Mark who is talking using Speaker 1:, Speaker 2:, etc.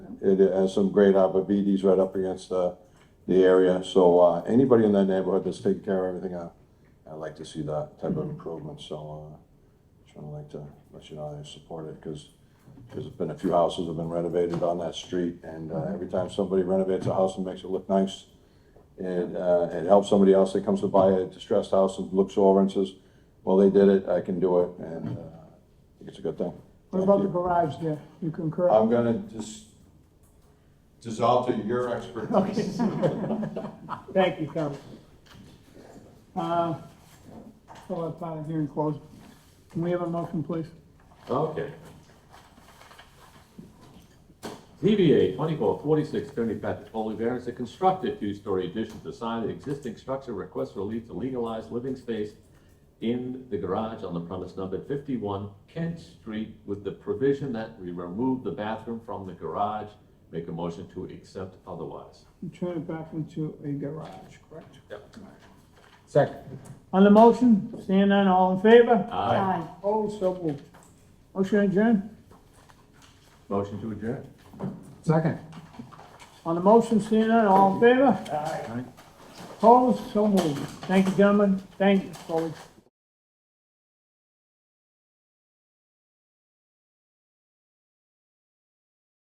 Speaker 1: it has some great arborvitae's right up against the, the area. So, uh, anybody in that neighborhood that's taking care of everything, I, I'd like to see that type
Speaker 2: Mm-hmm.
Speaker 1: of improvement, so, uh, just wanna like to let you know I support it, cause there's been a few houses have been renovated on that street, and,
Speaker 2: Mm-hmm.
Speaker 1: uh, every time somebody renovates a house and makes it look nice, it, uh, it helps somebody else that comes to buy a distressed house and looks over and says, well, they did it, I can do it, and, uh, I think it's a good thing.
Speaker 2: What
Speaker 1: Thank
Speaker 2: about
Speaker 1: you.
Speaker 2: the garage there? You concur?
Speaker 1: I'm gonna just dissolve to your expertise.
Speaker 2: Thank you, Kevin. Uh, I'll let part of hearing closed. Can we have a motion, please?
Speaker 3: Okay. ZBA twenty-four forty-six, Attorney Patrick Foley, variance to construct a two-story addition to sign the existing structure, request relief to legalize living space in the garage on the premise numbered fifty-one Kent Street with the provision that we remove the bathroom from the garage. Make a motion to accept otherwise.
Speaker 2: You Turn it back into a garage, correct?
Speaker 4: Second.
Speaker 2: On the motion, seeing none, all in favor?
Speaker 3: Aye.
Speaker 2: Opposed, so moved. Motion adjourned?
Speaker 3: Motion to adjourn.
Speaker 4: Second.
Speaker 2: On the motion, seeing none, all in favor? Aye. Opposed, so moved. Thank you, gentlemen. Thank you, folks.